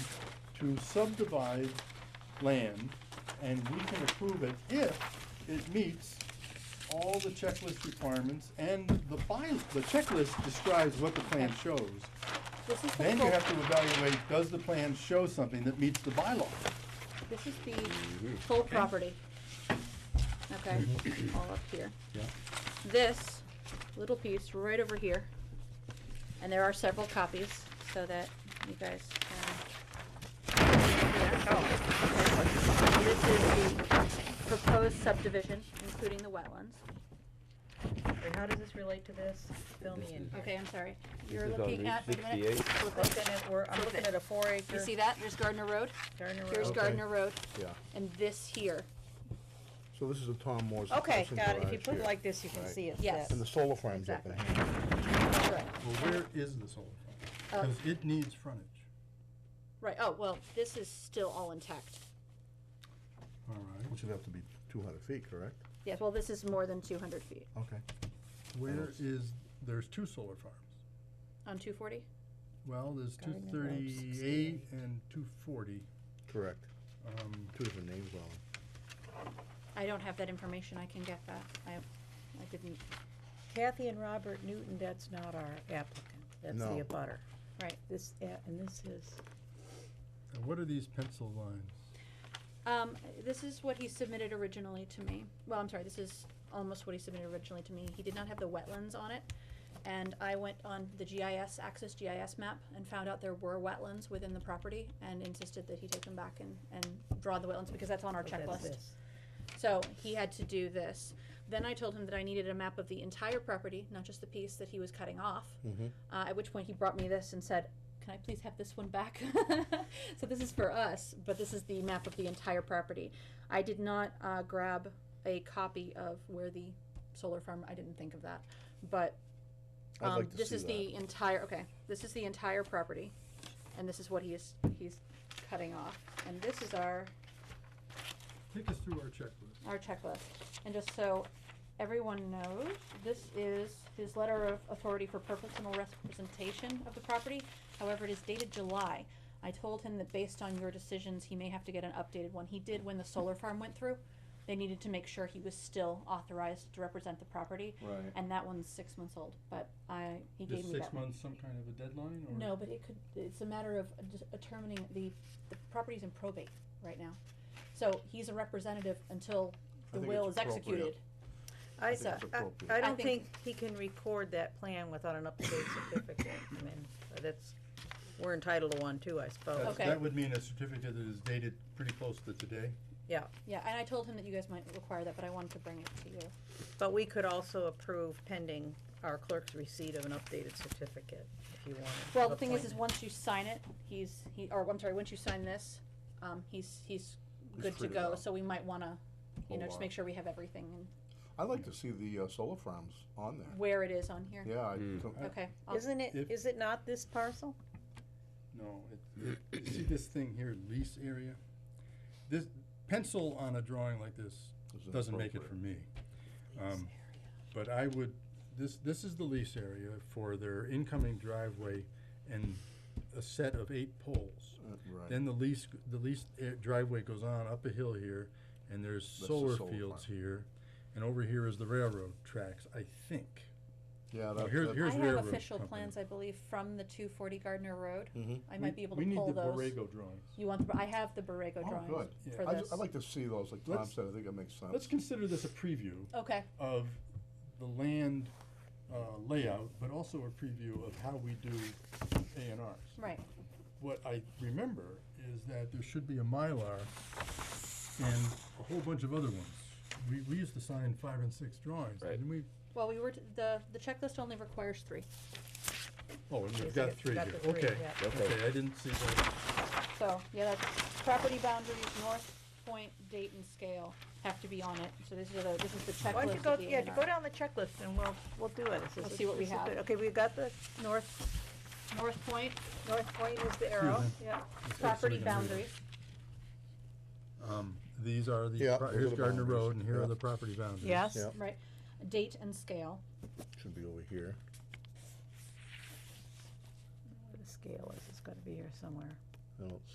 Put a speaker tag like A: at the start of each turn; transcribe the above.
A: to subdivide land, and we can approve it if it meets all the checklist requirements, and the by, the checklist describes what the plan shows.
B: This is the
A: Then you
B: full-
A: have to evaluate, does the plan show something that meets the bylaw?
B: This is the full property. Okay, all up here.
A: Yeah.
B: This little piece right over here, and there are several copies, so that you guys can. This is the proposed subdivision, including the wetlands.
C: Wait, how does this relate to this? Fill me in.
B: Okay, I'm sorry.
D: This
B: You're
D: is on
B: looking
D: Route
B: at, wait a minute.
D: 68.
B: flip it.
C: Looking at, we're, I'm
B: Flip
C: looking
B: it.
C: at a four acre.
B: You see that? There's Gardner Road.
C: Gardner
B: Here's
C: Road.
E: Okay.
B: Gardner Road,
E: Yeah,
B: and this here.
E: so this is a Tom Moore's.
C: Okay,
E: existing
C: got it. If
E: garage
C: you put it
E: here.
C: like this, you can
E: Right.
C: see it.
B: Yes.
C: fit.
E: And the solar frame's up in
B: Exactly.
E: here.
B: Correct.
F: Well, where is the solar farm? Because it needs frontage.
B: Right, oh, well, this is still all intact.
F: All right.
E: Which would have to be two hundred feet, correct?
B: Yes, well, this is more than two hundred feet.
E: Okay.
F: Where is, there's two solar farms.
B: On two forty?
F: Well, there's two
C: Gardner Road,
F: thirty-eight
C: 68.
F: and two forty.
E: Correct.
F: Um,
E: Two different names on it.
B: I don't have that information, I can get that. I, I didn't,
C: Kathy and Robert Newton, that's not our applicant. That's
E: No.
C: the abutter.
B: right.
C: This, a- and this is,
F: and what are these pencil lines?
B: Um, this is what he submitted originally to me. Well, I'm sorry, this is almost what he submitted originally to me. He did not have the wetlands on it. And I went on the GIS, Access GIS map, and found out there were wetlands within the property and insisted that he take them back and, and draw the wetlands because that's on our
C: oh, that's
B: checklist.
C: this.
B: So he had to do this. Then I told him that I needed a map of the entire property, not just the piece that he was cutting off.
E: Mhm.
B: Uh, at which point he brought me this and said, "Can I please have this one back?" so this is for us, but this is the map of the entire property. I did not uh, grab a copy of where the solar farm. I didn't think of that, but
E: I'd
B: um,
E: like to
B: this
E: see
B: is
E: that.
B: the entire. Okay, this is the entire property, and this is what he is he's cutting off, and this is our
F: Take us through our checklist.
B: our checklist. And just so everyone knows, this is his letter of authority for personal representation of the property. However, it is dated July. I told him that based on your decisions, he may have to get an updated one. He did when the solar farm went through. They needed to make sure he was still authorized to represent the property.
D: Right.
B: And that one's six months old, but I, he gave
F: Is
B: me that
F: six
B: one.
F: months some kind of a deadline or?
B: No, but it could, it's a matter of just determining the, the property's in probate right now. So he's a representative until
E: I
B: the
E: think
B: will is
E: it's
B: executed.
E: appropriate.
C: I,
E: think it's
C: I-
E: appropriate.
C: I
B: I
C: don't
B: think-
C: think he can record that plan without an up-to-date certificate. I mean, that's, we're entitled to one too, I suppose.
F: That's-
B: Okay.
F: That would mean a certificate that is dated pretty close to today.
C: Yeah,
B: Yeah, and I told him that you guys might require that, but I wanted to bring it to you.
C: but we could also approve pending our clerk's receipt of an updated certificate if you wanted.
B: Well,
C: of
B: the thing is, is
C: appointment.
B: once you sign it, he's, he, or I'm sorry, once you sign this, um, he's, he's
D: He's
B: good to
D: free to
B: go,
D: go.
B: so we might wanna, you know,
D: Hold
B: just
D: on.
B: make sure we have everything
E: I'd like to see the uh, solar farms on
B: and
E: there.
B: where it is on here.
E: Yeah, I,
F: Hmm.
D: Mm.
E: com-
B: Okay, I'll-
C: Isn't it,
F: If-
C: is it not this parcel?
F: No, it, it, you see this thing here, lease area? This pencil on a drawing like this
E: Isn't
F: doesn't make it for me. Um, But I would, this, this is the lease area for their incoming driveway and a set of eight poles.
E: uh, right.
F: Then the lease, the lease a- driveway goes on up a hill here, and there's
E: the
F: solar
E: solar
F: fields
E: farm.
F: here, and over here is the railroad tracks, I think.
E: Yeah,
F: Oh,
E: that,
F: here's-
E: that-
F: here's-
B: I have
F: railroad
B: official
F: company.
B: plans, I believe, from the two forty Gardner Road.
E: Mhm.
B: I
F: We-
B: might be able to pull those.
F: We need the Borrego drawings.
B: You want, the I have the Borrego
E: oh,
B: drawings
E: good.
F: Yeah.
B: for
E: I ju-
B: this.
E: I'd like to see those, like Tom
F: Let's-
E: said, I think it makes
F: Let's
E: sense.
F: consider this a preview
B: Okay,
F: of the land uh, layout, but also a preview of how we do A and Rs.
B: right,
F: What I remember is that there should be a Mylar and a whole bunch of other ones. We, we used to sign five and six drawings,
D: Right.
F: didn't we?
B: well, we were, t- the, the checklist only requires three,
F: Oh, and
C: Yes,
F: we've
C: I
F: got
C: got-
F: three
C: got
F: here,
C: the three,
F: okay.
C: yeah.
D: Okay.
F: I didn't see that.
B: so, yeah, that's property boundaries, north point, date and scale have to be on it, so this is the, this is the
C: Why don't you
B: checklist
C: go,
B: of the A
C: yeah,
B: and
C: go
B: R.
C: down the checklist and we'll, we'll do it. This is-
B: We'll see what we
C: this is
B: have.
C: good. Okay, we've got the,
B: North, north point,
C: North Point is the arrow,
F: Mhm.
C: yeah.
F: Let's see if somebody can
B: property
F: read
B: boundaries,
F: it. Um, these are the,
E: Yeah,
F: pro-
E: those are
F: here's
E: the
F: Gardner
E: boundaries,
F: Road and here
E: yeah.
F: are the property boundaries.
C: Yes,
E: Yeah.
B: right, date and scale,
E: Should be over here.
C: the scale is, it's gotta be here somewhere.
E: I don't